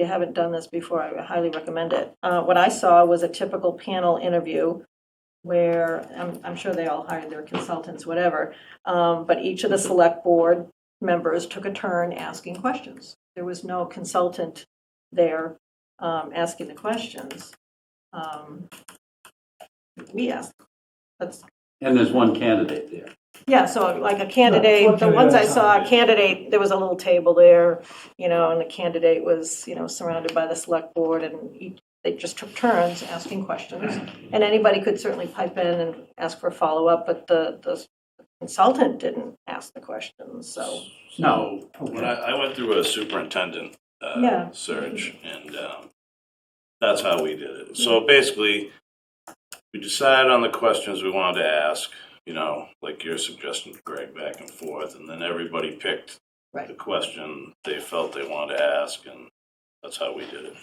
you haven't done this before, I highly recommend it. Uh, What I saw was a typical panel interview where, I'm, I'm sure they all hired their consultants, whatever, um, but each of the select board members took a turn asking questions. There was no consultant there um, asking the questions. Um, We asked, that's, And there's one candidate there. yeah, so like a candidate, the ones I saw, a candidate, there was a little table there, you know, and the candidate was, you know, surrounded by the select board and each- they just took turns asking questions. And anybody could certainly pipe in and ask for a follow-up, but the, the consultant didn't ask the questions, so. No. When I, I went through a superintendent uh, Yeah. search, and um, that's how we did it. So basically, we decided on the questions we wanted to ask, you know, like your suggestion, Greg, back and forth, and then everybody picked Right. the question they felt they wanted to ask, and that's how we did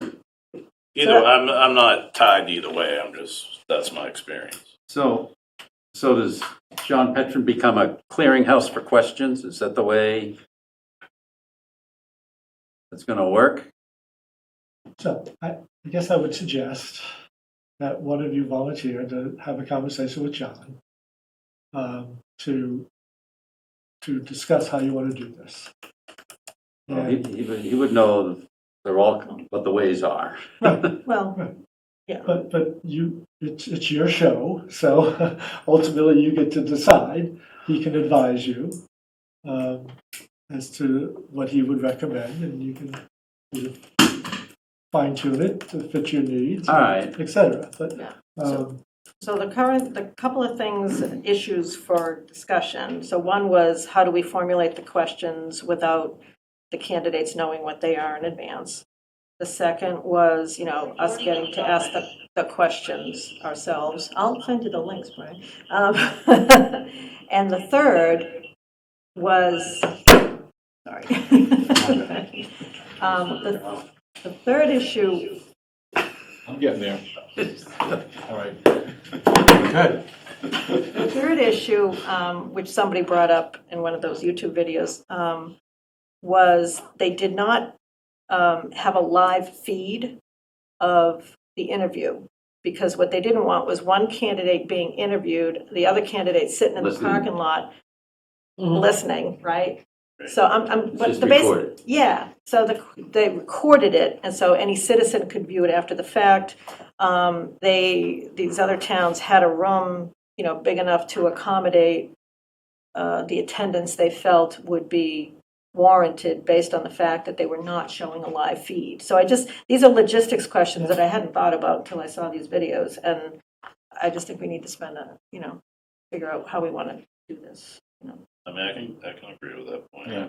it. Either, So- I'm, I'm not tied either way, I'm just, that's my experience. So, so does John Petron become a clearinghouse for questions? Is that the way it's going to work? So I, I guess I would suggest that one of you volunteer to have a conversation with John um, to to discuss how you want to do this. Well, And- He, he would- he would know they're all, what the ways are. right, Well, but but you, it's it's your show, so ultimately you get to decide. He can advise you um, as to what he would recommend, and you can you know, fine tune it to fit your needs, All right, etc. But Yeah. um, So the current, the couple of things, issues for discussion. So one was, how do we formulate the questions without the candidates knowing what they are in advance? The second was, you know, us getting to ask the, the questions ourselves. I'll send you the links, Brian. Um, And the third was, sorry. Um, The the third issue I'm getting there. All right. The third issue, um, which somebody brought up in one of those YouTube videos, um, was they did not um, have a live feed of the interview. Because what they didn't want was one candidate being interviewed, the other candidate sitting in the Listening. parking lot, Mhm. listening, right? So I'm, I'm, it's but just the basic, recorded. yeah, so the, they recorded it, and so any citizen could view it after the fact. Um, they, these other towns had a room, you know, big enough to accommodate uh, the attendance they felt would be warranted based on the fact that they were not showing a live feed. So I just, these are logistics questions that I hadn't thought about until I saw these videos, and I just think we need to spend a, you know, figure out how we want to do this. I mean, I can, I can agree with that point. Yeah.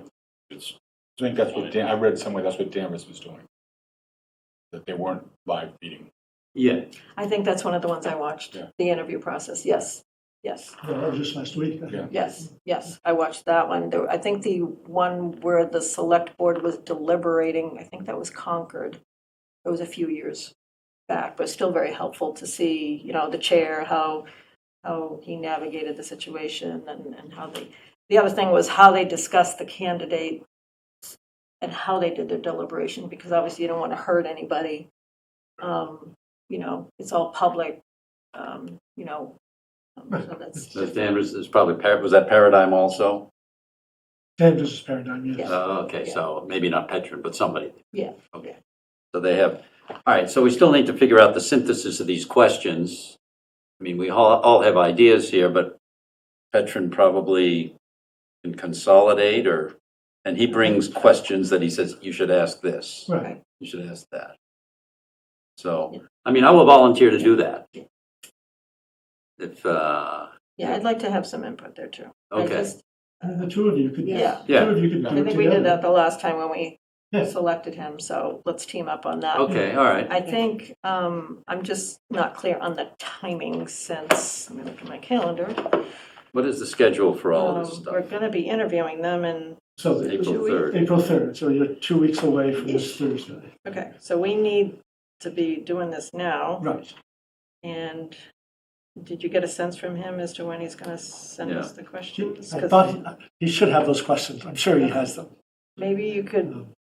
It's, I think that's what Dan, I read somewhere that's what Danvers was doing. That they weren't live feeding. Yeah. I think that's one of the ones I watched, Yeah. the interview process, yes, yes. No, just last week. Yeah. Yes, yes, I watched that one. There, I think the one where the select board was deliberating, I think that was Concord. It was a few years back, but still very helpful to see, you know, the chair, how, how he navigated the situation and, and how they, the other thing was how they discussed the candidate and how they did their deliberation, because obviously you don't want to hurt anybody. Um, You know, it's all public, um, you know, um, so that's. So Danvers is probably, Par- was that Paradigm also? Danvers is paradigm, yes. Yeah. Oh, okay, so maybe not Petron, but somebody. Yeah. Okay. So they have, all right, so we still need to figure out the synthesis of these questions. I mean, we all, all have ideas here, but Petron probably can consolidate or, and he brings questions that he says, you should ask this, Right. you should ask that. So, I mean, I will volunteer to do that. If, uh, Yeah, I'd like to have some input there too. I okay, just- And uh, the two of you could, Yeah. two of you could do I it think we did that together. the last time when we Yeah. selected him, so let's team up on that. okay, all right. I think, um, I'm just not clear on the timing since, let me look at my calendar. What is the schedule for all of this Um, We're stuff? gonna be interviewing them and, So the- April Should we- 3rd. April 3rd, so you're two weeks away from this Thursday. okay, so we need to be doing this now. Right. And did you get a sense from him as to when he's gonna send us the questions? I 'Cause thought, he- he should have those questions. I'm sure he has them. Maybe you could